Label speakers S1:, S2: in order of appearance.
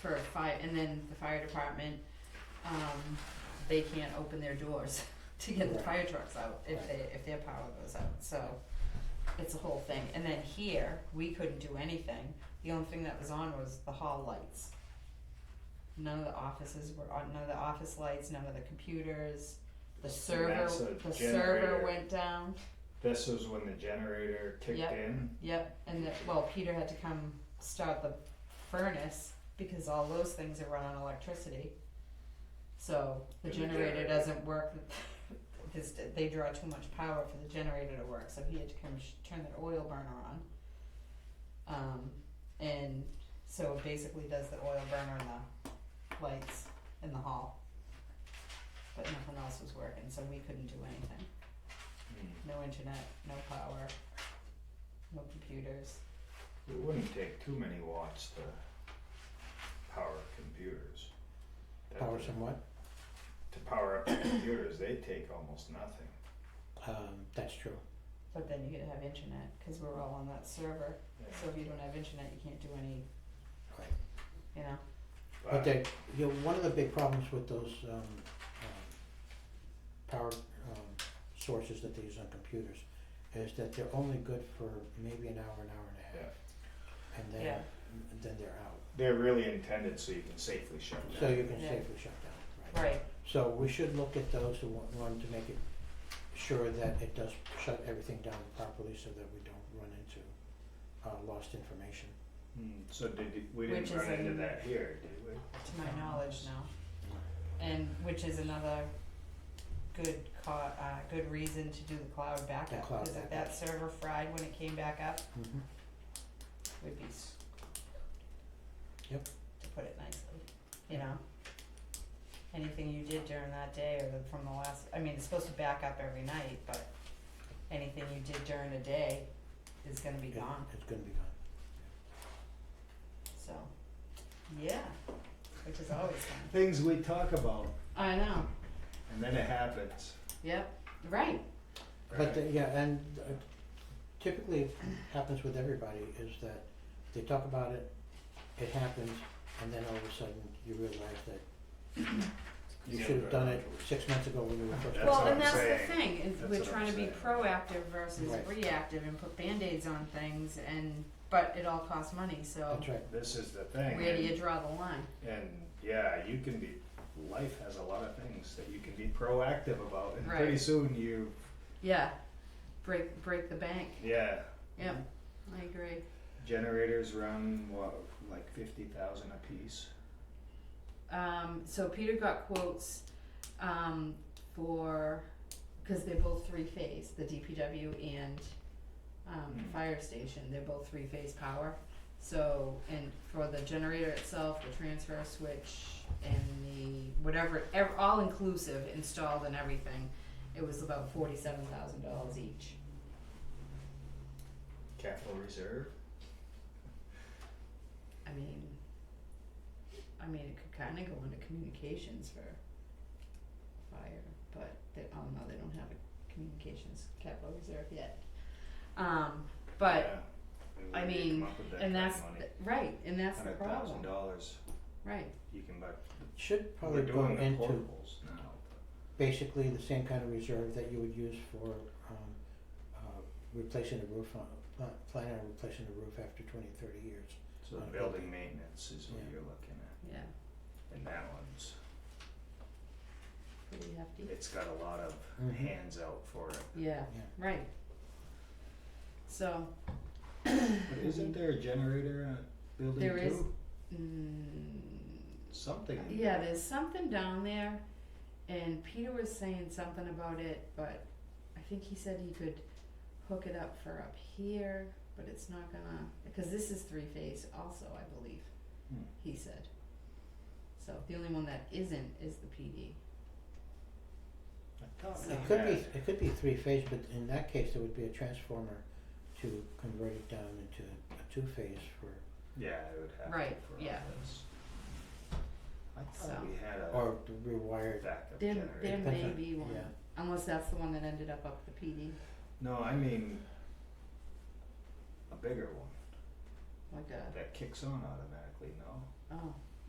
S1: for fire, and then the fire department, um, they can't open their doors to get the
S2: Right.
S1: fire trucks out if they, if their power goes out, so it's a whole thing, and then here, we couldn't do anything, the only thing that was on was the hall lights. None of the offices were on, none of the office lights, none of the computers, the
S2: That's
S1: server,
S2: a
S1: the
S2: generator.
S1: server went down,
S2: This was when the generator kicked
S1: Yep.
S2: in.
S1: Yep, and that, well, Peter had to come start the furnace because all those things are run on electricity. So the
S2: And the
S1: generator
S2: generator.
S1: doesn't work, because they draw too much power for the generator to work, so he had to come sh- turn that oil burner on. Um, and so it basically does the oil burner and the lights in the hall. But nothing else was working, so we couldn't do anything
S2: Hmm.
S1: no internet, no power, no computers.
S2: It wouldn't take too many watts to power computers. That
S3: Power
S2: doesn't-
S3: somewhat.
S2: To power up the computers, they take almost nothing.
S3: Um, that's true.
S1: But then you gotta have internet, cause we're all on that server,
S2: Yeah.
S1: so if you don't have internet, you can't do any,
S3: Right.
S1: you know,
S3: But that, you know, one of the big problems with those um, um, power um, sources that they use on computers is that they're only good for maybe an hour, an hour and a half, and then
S1: Yeah.
S3: and then they're out.
S2: They're really intended so you can safely shut down.
S3: So you can
S1: Yeah.
S3: safely shut down, right?
S1: right,
S3: So we should look at those who want, want to make it sure that it does shut everything down properly so that we don't run into uh, lost information.
S2: Hmm, so did, you- we
S1: Which
S2: didn't
S1: is
S2: run into
S1: in-
S2: that here, did we?
S1: to my knowledge now. And which is another good ca- uh, good reason to do the cloud
S3: The
S1: backup,
S3: cloud
S1: cause if
S3: backup.
S1: that server fried when it came back up,
S3: Mm-hmm.
S1: we'd be screwed.
S3: Yep.
S1: To put it nicely, you know? Anything you did during that day or the, from the last, I mean, it's supposed to back up every night, but anything you did during a day is gonna be gone,
S3: It's gonna be gone.
S1: so, yeah, which is always fun.
S2: Things we talk about,
S1: I know,
S2: and then it happens.
S1: yep, right,
S3: But the, yeah, and uh, typically it happens with everybody is that they talk about it, it happens, and then all of a sudden you realize that you should have done it six months ago when you were first.
S2: That's
S1: well,
S2: what
S1: and
S2: I'm
S1: that's the
S2: saying.
S1: thing, and
S2: That's
S1: we're
S2: what I'm
S1: trying to be
S2: saying.
S1: proactive versus
S3: Right.
S1: reactive and put Band-Aids on things and, but it all costs money, so
S3: That's right,
S2: This is the thing.
S1: where do
S2: and-
S1: you draw the line?
S2: And yeah, you can be, life has a lot of things that you can be proactive about, and
S1: Right.
S2: pretty soon you,
S1: Yeah, break break the bank.
S2: yeah,
S1: Yeah, I agree.
S2: generators run, what, like fifty thousand apiece?
S1: Um, so Peter got quotes um, for because they're both three phase, the DPW and um,
S2: Hmm.
S1: fire station. They're both three phase power. So and for the generator itself, the transfer switch, and the whatever, ev- all inclusive installed and everything, it was about forty seven thousand dollars each.
S2: Capital reserve?
S1: I mean, I mean, it could kind of go into communications for fire, but they, oh no, they don't have a communications capital reserve yet. Um, but,
S2: Yeah. And
S1: I
S2: where do you come
S1: mean,
S2: up with that
S1: and
S2: kind of
S1: that's,
S2: money?
S1: the- right, and that's the
S2: Hundred thousand
S1: problem,
S2: dollars,
S1: right,
S2: you can buy,
S3: should
S2: we're
S3: probably go
S2: doing the
S3: into
S2: portables now,
S3: basically the same kind of reserve that you would use for um uh replacing the roof on, pla- planning on replacing the roof after twenty, thirty years.
S2: so
S3: Okay.
S2: building maintenance is what
S3: Yeah.
S2: you're looking at,
S1: yeah,
S2: and that one's,
S1: pretty hefty,
S2: it's got a lot of
S3: Mhm.
S2: hands out for it.
S1: yeah,
S3: Yeah.
S1: right. So,
S2: But isn't there a generator on building two?
S1: There is. mm,
S2: Something.
S1: Yeah, there's something down there, and Peter was saying something about it, but I think he said he could hook it up for up here, but it's not gonna, because this is three phase also, I believe,
S2: Hmm.
S1: he said. So the only one that isn't is the PD.
S2: I thought
S1: So-
S2: we
S3: It could be,
S2: had-
S3: it could be three-phase, but in that case, there would be a transformer to convert it down into a two-phase for,
S2: Yeah, it would have
S1: Right,
S2: to for
S1: yeah.
S2: all this. I
S1: So.
S2: thought we had a
S3: or to rewire it.
S2: backup
S1: There,
S2: generator.
S1: there
S3: Depends
S1: may
S3: on-
S1: be one,
S3: yeah.
S1: unless that's the one that ended up up the PD,
S2: No, I mean a bigger one
S1: like a,
S2: that kicks on automatically. No,
S1: oh,